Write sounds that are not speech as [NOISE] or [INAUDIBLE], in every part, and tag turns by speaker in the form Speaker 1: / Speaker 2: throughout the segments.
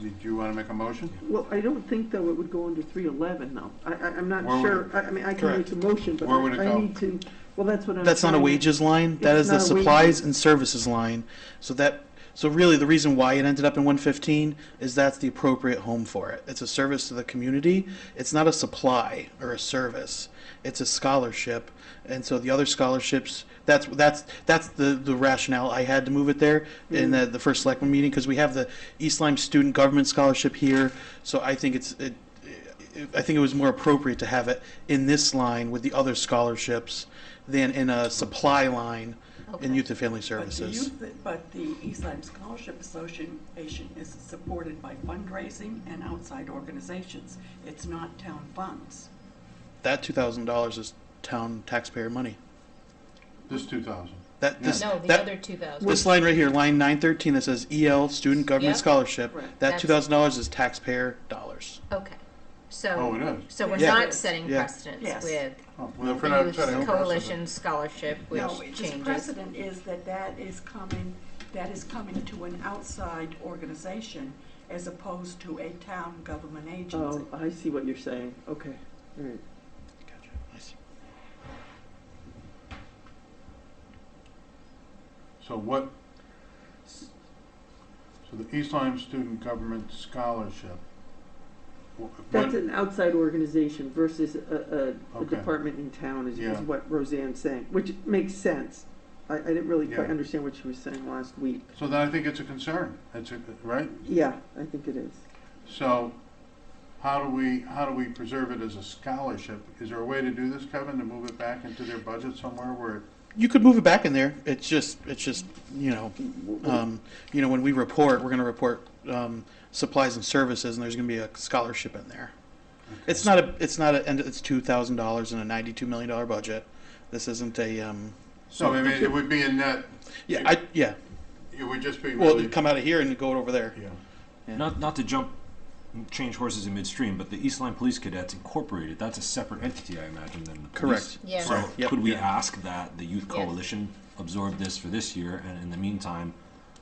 Speaker 1: Did you want to make a motion?
Speaker 2: Well, I don't think, though, it would go under three eleven, though. I, I, I'm not
Speaker 1: Where would
Speaker 2: sure, I, I mean, I can make
Speaker 3: Correct.
Speaker 2: the motion, but
Speaker 1: Where would it
Speaker 2: I- I
Speaker 1: go?
Speaker 2: need to, well, that's what I'm.
Speaker 3: That's not a
Speaker 2: trying to-
Speaker 3: wages line, that
Speaker 2: It's
Speaker 3: is the
Speaker 2: not a wages-
Speaker 3: supplies and services line. So that, so really the reason why it ended up in one fifteen is that's the appropriate home for it. It's a service to the community, it's not a supply or a service, it's a scholarship. And so the other scholarships, that's, that's, that's the, the rationale I had to move it there in the, the first selectman meeting, because we have the East Lyme Student Government Scholarship here. So I think it's, it, I think it was more appropriate to have it in this line with the other scholarships than in a supply line in
Speaker 4: Okay.
Speaker 3: youth and family
Speaker 5: But the
Speaker 3: services.
Speaker 5: youth, but the East Lyme Scholarship Association is supported by fundraising and outside organizations. It's not town funds.
Speaker 3: That two thousand dollars is town taxpayer money.
Speaker 1: This two thousand.
Speaker 3: That this
Speaker 4: No, the
Speaker 3: that-
Speaker 4: other two thousand.
Speaker 3: this line right here, line nine thirteen, that says EL student government
Speaker 4: Yep.
Speaker 3: scholarship.
Speaker 2: Right.
Speaker 3: That
Speaker 4: That's-
Speaker 3: two thousand dollars is taxpayer dollars.
Speaker 4: Okay,
Speaker 1: Oh,
Speaker 4: so,
Speaker 1: it is.
Speaker 4: so we're
Speaker 3: Yeah.
Speaker 4: not setting
Speaker 3: Yeah.
Speaker 4: precedence
Speaker 5: Yes.
Speaker 4: with
Speaker 1: Oh,
Speaker 4: the
Speaker 1: well, if we're not
Speaker 4: Youth
Speaker 1: setting a
Speaker 4: Coalition Scholarship, which
Speaker 5: No, it's just
Speaker 4: changes.
Speaker 5: precedent is that that is coming, that is coming to an outside organization as opposed to a town government agency.
Speaker 2: Oh, I see what you're saying, okay, all right.
Speaker 3: Gotcha. Nice.
Speaker 1: precedent. So what, so the East Lyme Student Government Scholarship. wh-
Speaker 2: That's
Speaker 1: what-
Speaker 2: an outside organization versus a, a, a
Speaker 1: Okay.
Speaker 2: department in town is, is
Speaker 1: Yeah.
Speaker 2: what Roseanne's saying, which makes sense. I, I didn't really quite
Speaker 1: Yeah.
Speaker 2: understand what she was saying last week.
Speaker 1: So then I think it's a concern. It's a, right?
Speaker 2: Yeah, I think it is.
Speaker 1: So how do we, how do we preserve it as a scholarship? Is there a way to do this, Kevin, to move it back into their budget somewhere where it
Speaker 3: You could move it back in there. It's just, it's just, you know, um, you know, when we report, we're gonna report, um, supplies and services, and there's gonna be a scholarship in there. It's not a, it's not a, and it's two thousand dollars in a ninety-two million dollar budget. This isn't a, um,
Speaker 1: So I mean, it would be in that,
Speaker 3: yeah, I, yeah,
Speaker 1: it would just be
Speaker 3: well,
Speaker 1: really.
Speaker 3: it'd come out of here and go over there.
Speaker 1: Yeah.
Speaker 6: Not, not to jump, change horses in midstream, but the East Line Police Cadets Incorporated, that's a separate entity, I imagine, than the
Speaker 3: Correct.
Speaker 6: police.
Speaker 4: Yeah.
Speaker 6: So
Speaker 4: Right,
Speaker 3: yep.
Speaker 6: could we
Speaker 3: Yeah.
Speaker 6: ask that the Youth
Speaker 4: Yes.
Speaker 6: Coalition absorb this for this year, and in the meantime,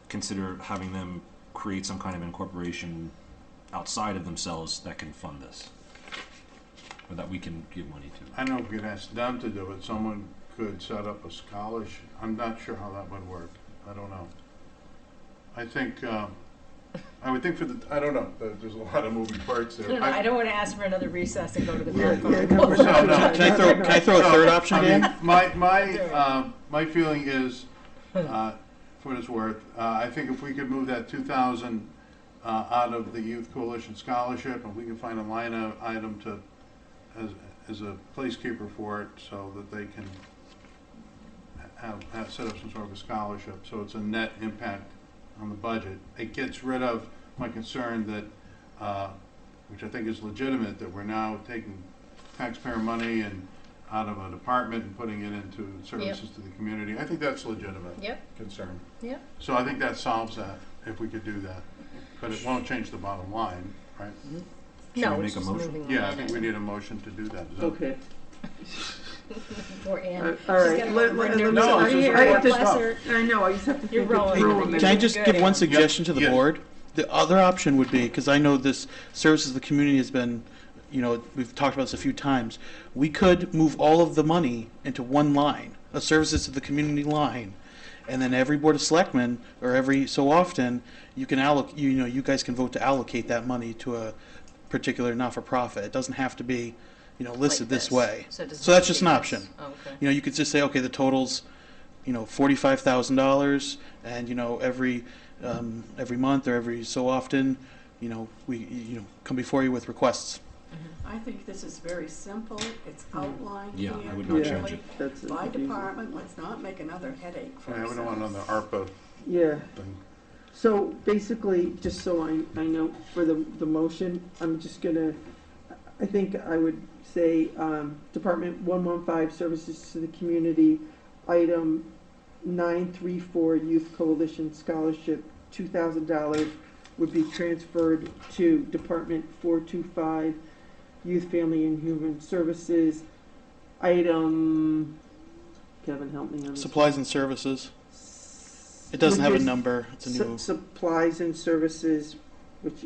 Speaker 6: consider having them create some kind of incorporation outside of themselves that can fund this? Or that we can give money to?
Speaker 1: I know if we could ask them to do it, someone could set up a scholarship. I'm not sure how that would work. I don't know. I think, um, I would think for the, I don't know, There- there's a lot of moving parts
Speaker 4: [LAUGHS]
Speaker 1: there.
Speaker 4: don't wanna ask for another recess and go to the
Speaker 1: So,
Speaker 3: [LAUGHS]
Speaker 1: no.
Speaker 3: Can I throw, can I throw a third
Speaker 1: So,
Speaker 3: option,
Speaker 1: I mean,
Speaker 3: Dan?
Speaker 1: My, my, um, my feeling is, uh, for what it's worth, uh, I think if we could move that two thousand, uh, out of the Youth Coalition Scholarship, and we can find a line of item to, as, as a placekeeper for it, so that they can have, have, set up some sort of a scholarship, so it's a net impact on the budget. It gets rid of my concern that, uh, which I think is legitimate, that we're now taking taxpayer money and out of a department and putting it into services to the community. I think that's legitimate
Speaker 4: Yep,
Speaker 1: concern.
Speaker 4: yep.
Speaker 1: So I think that solves that, if we could do that. But it won't change the bottom line, right?
Speaker 6: Should
Speaker 4: No,
Speaker 6: we
Speaker 4: it's
Speaker 6: make a
Speaker 4: just
Speaker 6: motion?
Speaker 4: moving on.
Speaker 1: Yeah, I think we need a motion to do that. Is that-
Speaker 2: Okay.
Speaker 4: Or in.
Speaker 2: Uh, All right. Let- let- let me-
Speaker 1: No,
Speaker 2: I-
Speaker 1: it's just
Speaker 2: I
Speaker 1: a lot of
Speaker 2: just-
Speaker 1: stuff.
Speaker 2: I know, I just have to
Speaker 4: You're
Speaker 2: think it
Speaker 4: rolling.
Speaker 2: through. and
Speaker 3: Can I
Speaker 2: then-
Speaker 3: just give one suggestion to the
Speaker 1: Yes.
Speaker 3: board? The other option would be, because I know this services to the community has been, you know, we've talked about this a few times. We could move all of the money into one line, a services to the community line. And then every board of selectmen, or every so often, you can alloc, you know, you guys can vote to allocate that money to a particular not-for-profit. It doesn't have to be, you know, listed
Speaker 4: like
Speaker 3: this way.
Speaker 4: it doesn't
Speaker 3: So that's
Speaker 4: have to
Speaker 3: just
Speaker 4: be
Speaker 3: an
Speaker 4: this.
Speaker 3: option.
Speaker 4: Oh, Okay.
Speaker 3: You know, you could just say, okay, the total's, you know, forty-five thousand dollars, and you know, every um, every month or every so often, you know, we you know come before you with requests.
Speaker 4: Mm-hmm.
Speaker 5: I think this is very simple, it's outlined here.
Speaker 6: Yeah, I would not
Speaker 2: Yeah.
Speaker 6: change it.
Speaker 2: That's it.
Speaker 5: By department, let's not make another headache for
Speaker 1: I mean, we
Speaker 5: ourselves.
Speaker 1: don't want another ARPA
Speaker 2: Yeah,
Speaker 1: thing.
Speaker 2: so basically, just so I, I know for the, the motion, I'm just gonna, I think I would say, um, Department one-one-five Services to the Community, item nine-three-four Youth Coalition Scholarship, two thousand dollars would be transferred to Department four-two-five Youth, Family, and Human Services, item, Kevin, help me on this.
Speaker 3: Supplies and services. It doesn't have a
Speaker 2: Would this-
Speaker 3: number. It's a
Speaker 2: Sup-
Speaker 3: new.
Speaker 2: Supplies and services, which